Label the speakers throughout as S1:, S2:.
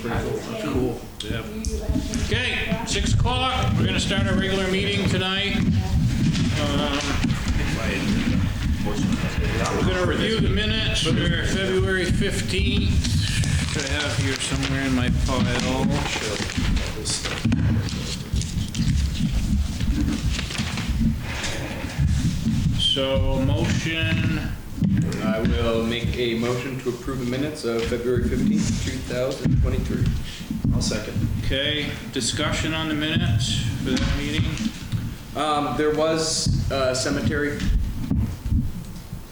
S1: That's cool.
S2: Yep. Okay, six o'clock, we're gonna start our regular meeting tonight. Um, We're gonna review the minutes for February 15th, which I have here somewhere in my file. So, motion,
S3: I will make a motion to approve the minutes of February 15th, 2023.
S1: I'll second.
S2: okay, discussion on the minutes for that meeting?
S3: Um, There was a cemetery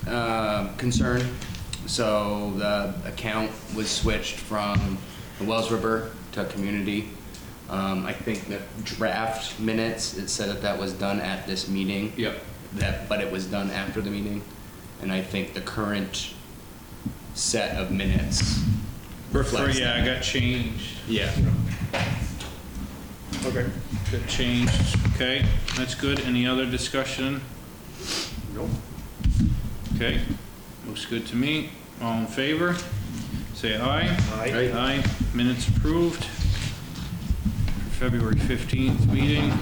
S3: um, concern, so the account was switched from the Wells River to Community. Um, I think the draft minutes, it said that that was done at this meeting.
S2: Yep.
S3: That, but it was done after the meeting, and I think the current set of minutes reflects that.
S2: Yeah, I got changed.
S3: Yeah.
S1: Okay.
S2: Good change, okay, that's good. Any other discussion?
S1: Nope.
S2: Okay, looks good to me. All in favor? Say aye.
S1: Aye.
S2: Aye, minutes approved. February 15th meeting.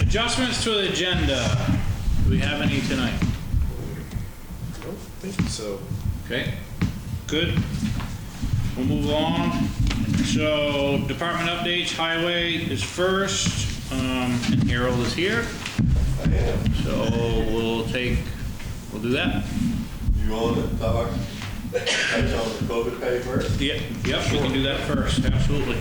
S2: Adjustments to the agenda. Do we have any tonight?
S1: Nope, thank you. So,
S2: Okay, good. We'll move along. So department updates, highway is first, um, and Harold is here. So we'll take, we'll do that.
S4: You want to talk? I tell the COVID paper.
S2: Yep, yep, we can do that first, absolutely.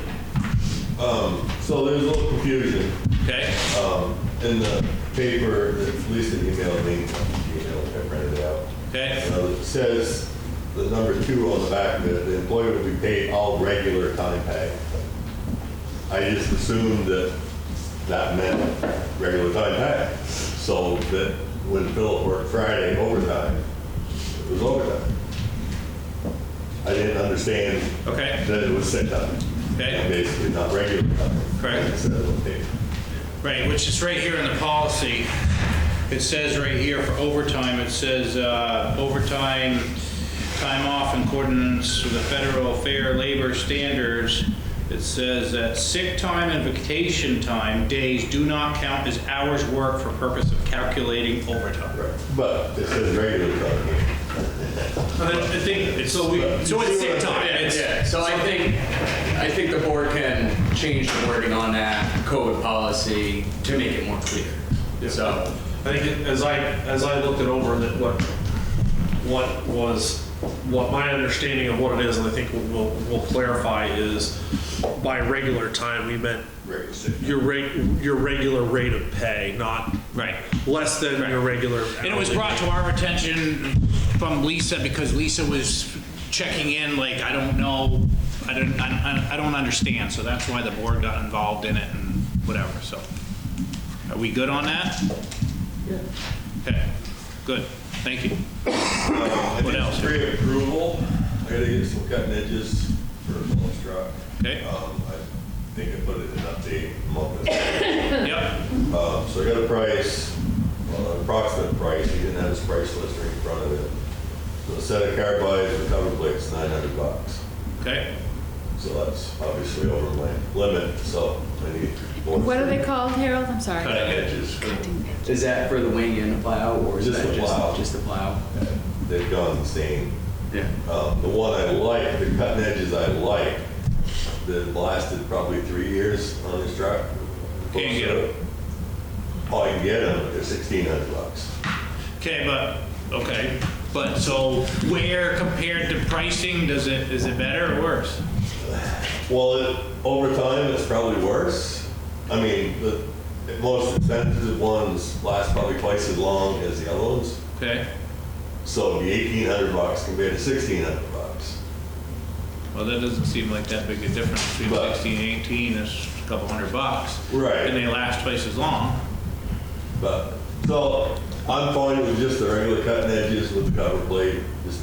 S4: Um, so there's a little confusion,
S2: Okay,
S4: um, in the paper, that Lisa emailed me, emailed, I printed it out.
S2: okay,
S4: Uh, It says, the number two on the back of it, the employee will be paid all regular time pay. I just assumed that that meant regular time pay. So that when Philip worked Friday overtime, it was overtime. I didn't understand
S2: Okay.
S4: that it was sick time.
S2: Okay.
S4: Basically, not regular time.
S2: Correct.
S4: It says on the paper.
S2: right, which is right here in the policy. It says right here for overtime, it says uh, overtime, time off in accordance with the federal fair labor standards. It says that sick time and vacation time days do not count as hours worked for purpose of calculating overtime.
S4: Right. But it says regular time.
S2: But I think, it's- so we, so it's sick time. Yeah, it's-
S3: Yeah, so I think, I think the board can change the wording on that code policy to make it more clear. So,
S5: I think it- as I, as I looked it over, that what, what was, what my understanding of what it is, and I think we'll, we'll clarify, is by regular time, we meant
S4: Regular sick.
S5: your rate, your regular rate of pay, not
S2: Right.
S5: less than your regular.
S2: And it was
S5: hourly
S2: brought to our attention from Lisa because Lisa was checking in like, I don't know, I don't, I I- I don't understand. So that's why the board got involved in it and whatever, so. Are we good on that? Okay, good, thank you.
S4: Um,
S2: What else?
S4: Pre-approval, I gotta get some cutting edges for a polish truck.
S2: Okay.
S4: Um, I think I put it in update a month ago.
S2: Yep,
S4: Um, so I got a price, well, an approximate price, he didn't have his price list right in front of it. So a set of carbides with cover plates, nine hundred bucks.
S2: okay,
S4: So that's obviously over my limit, so I need. more
S6: What are they
S4: for
S6: called, Harold? I'm sorry.
S4: Cutting edges.
S3: is that for the wing and the plow, or is
S4: Just
S3: that
S4: the plow.
S3: just, just the plow?
S4: They've gone insane.
S3: Yeah.
S4: Um, the one I like, the cutting edges I like, that lasted probably three years on this truck.
S2: Can't get 'em.
S4: Oh, I can get them, they're sixteen hundred bucks.
S2: okay, but, okay. But so where compared to pricing, does it, is it better or worse?
S4: Well, it, over time, it's probably worse. I mean, the the most expensive ones last probably twice as long as the other ones.
S2: Okay,
S4: So the eighteen hundred bucks compared to sixteen hundred bucks.
S2: well, that doesn't seem like that big a difference between
S4: But-
S2: 16 and 18, it's a couple hundred bucks.
S4: Right.
S2: And they last twice as long.
S4: But, so I'm fine with just the regular cutting edges with the cover plate, just